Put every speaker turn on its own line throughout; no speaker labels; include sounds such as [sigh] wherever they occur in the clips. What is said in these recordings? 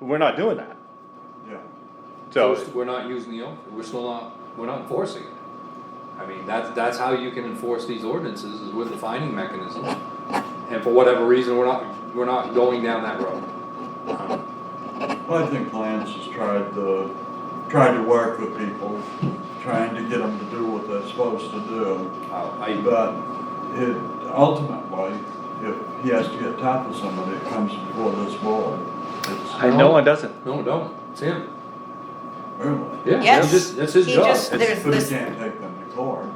We're not doing that.
yeah.
So,
We're not using the, op- we're still not, we're not enforcing it. I mean, that's, that's how you can enforce these ordinances, is with the finding mechanism. And for whatever reason, we're not, we're not going down that road. Um,
Well, I think Lance has tried to, tried to work with people, trying to get them to do what they're supposed to do.
I,
But it, ultimately, if he has to get tough with somebody, it comes before this board. It's
and no one doesn't.
no, don't, it's him,
really,
yeah, that's
Yes.
just, that's his
He
job.
just-
It's-
There's
but he
this-
can't take them to court.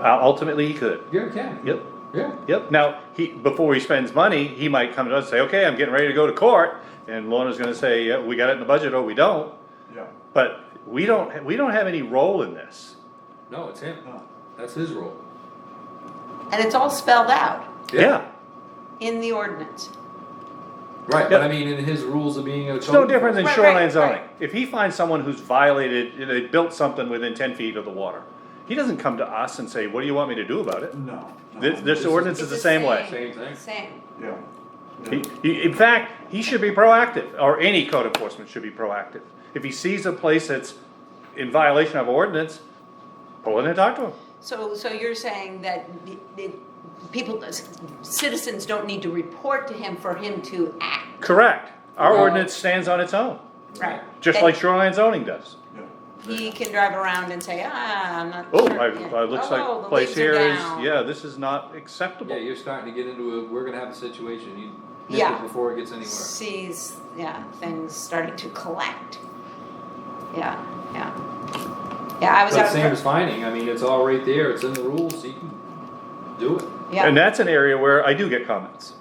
Uh, Ultimately, he could.
Yeah, it can,
Yep,
yeah,
yep. Now, he, before he spends money, he might come to us and say, okay, I'm getting ready to go to court. And Lorna's gonna say, yeah, we got it in the budget or we don't.
Yeah.
But we don't, we don't have any role in this.
no, it's him,
no.
that's his role.
And it's all spelled out
Yeah,
in the ordinance.
Right, but
Yeah.
I mean, in his rules of being a.
it's no different than
Right, right,
shoreline zoning.
right.
If he finds someone who's violated, you know, they built something within ten feet of the water, he doesn't come to us and say, what do you want me to do about it?
No.
This, this ordinance is the same way.
Same thing.
Same.
Yeah.
He, he- in fact, he should be proactive, or any code enforcement should be proactive. If he sees a place that's in violation of ordinance, pull in and talk to him.
So, so you're saying that the- the people, citizens don't need to report to him for him to act?
Correct. Our
Well-
ordinance stands on its own,
Right.
just
And
like shoreline zoning does.
Yeah.
He can drive around and say, ah, I'm not.
Oh,
sure,"
I,
yeah.
I, looks
Oh,
like
the
place
leaves are
here is,
down.
yeah, this is not
Yeah,
acceptable.
you're starting to get into a, we're gonna have a situation, you nip
Yeah.
it before it gets anywhere.
Sees, yeah, things starting to collect. Yeah, yeah. Yeah, I was
But
out,
same as
for-
finding, I mean, it's all right there, it's in the rules, you can do it.
And
yeah,
that's an area where I do get comments.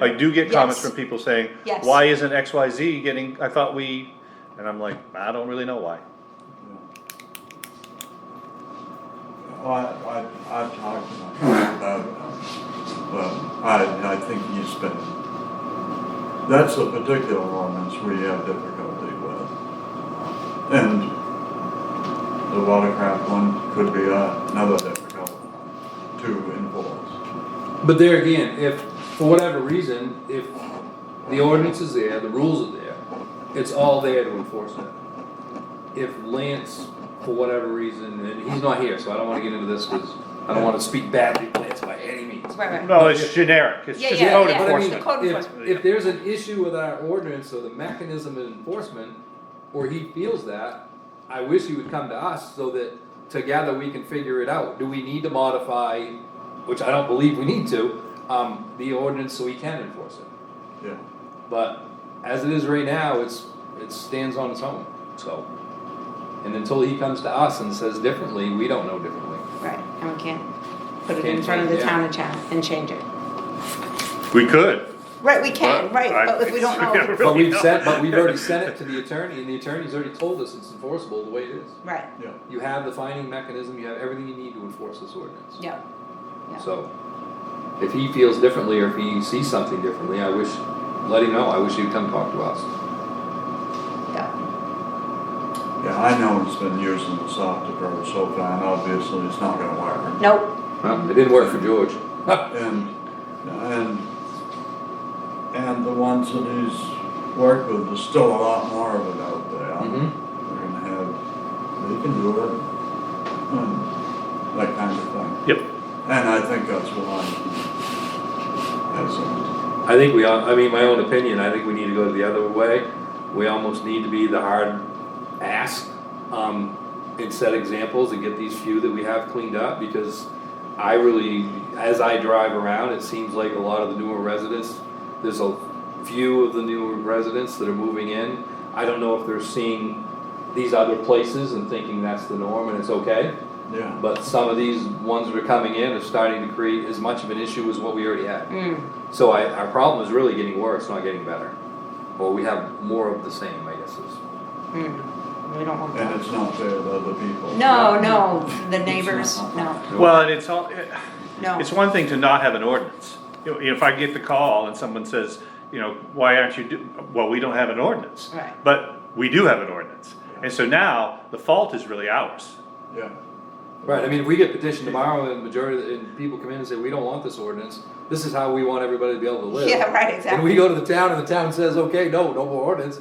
I do get comments
Yes.
from people saying,
Yes.
why isn't X, Y, Z getting, I thought we, and I'm like, I don't really know why.
Well, I, I, I've talked to him about it, but I, I think he's been, that's a particular ordinance we have difficulty with. And the watercraft one could be another difficult one to enforce.
But there again, if, for whatever reason, if the ordinance is there, the rules are there, it's all there to enforce it. If Lance, for whatever reason, and he's not here, so I don't wanna get into this, cause I don't wanna speak badly of Lance by any means.
right, right.
No, it's generic, it's
Yeah,
just
yeah,
code
yeah.
But I mean,
enforcement.
Code
if,
enforcement.
if there's an issue with our ordinance or the mechanism of enforcement, or he feels that, I wish he would come to us so that together we can figure it out. Do we need to modify, which I don't believe we need to, um, the ordinance so we can enforce it?
Yeah,
But as it is right now, it's, it stands on its own, so. And until he comes to us and says differently, we don't know differently.
Right, and we can't put it in
Can't
front of the
change, yeah.
town and cha- and change it.
We could.
Right, we can,
But
right,
I-
but if we don't
Yeah, [laughs]
know,
right.
But
Really
we've said,
not.
but we've already
[laughs]
sent it to the attorney, and the attorney's already told us it's enforceable the way it is.
right,
yeah.
You have the finding mechanism, you have everything you need to enforce this ordinance.
yeah. Yeah.
So, if he feels differently or if he sees something differently, I wish, let him know, I wish he'd come talk to us.
Yeah,
Yeah, I know he's been using the soft approach so far, and obviously it's not gonna work.
nope,
Well, it didn't work for George.
And, and, and the ones that he's worked with, there's still a lot more of it out there.
Mhm.
They're gonna have, they can do it, and that kind of thing.
Yep.
And I think that's why that's
I think we, all- I mean, my own opinion, I think we need to go the other way. We almost need to be the hard ask, um, and set examples and get these few that we have cleaned up, because I really, as I drive around, it seems like a lot of the newer residents, there's a few of the newer residents that are moving in. I don't know if they're seeing these other places and thinking that's the norm and it's okay,
it, yeah.
but some of these ones that are coming in are starting to create as much of an issue as what we already had.
mm,
So I, our problem is really getting worse, not getting better. Or we have more of the same, I guess is.
mm, we don't want
And
that.
it's not fair to other people.
No, no, the neighbors, no,
Well, and it's all,
no.
it's one thing to not have an ordinance. You know, If I get the call and someone says, you know, why aren't you, do- well, we don't have an ordinance.
Right.
But we do have an ordinance. And so now, the fault is really ours.
Yeah,
Right, I mean, if we get petitioned tomorrow and majority, of the- and people come in and say, we don't want this ordinance, this is how we want everybody to be able to live.
[laughs] Yeah, right,
And we
exactly.
go to the town and the town says, okay, no, no more ordinance,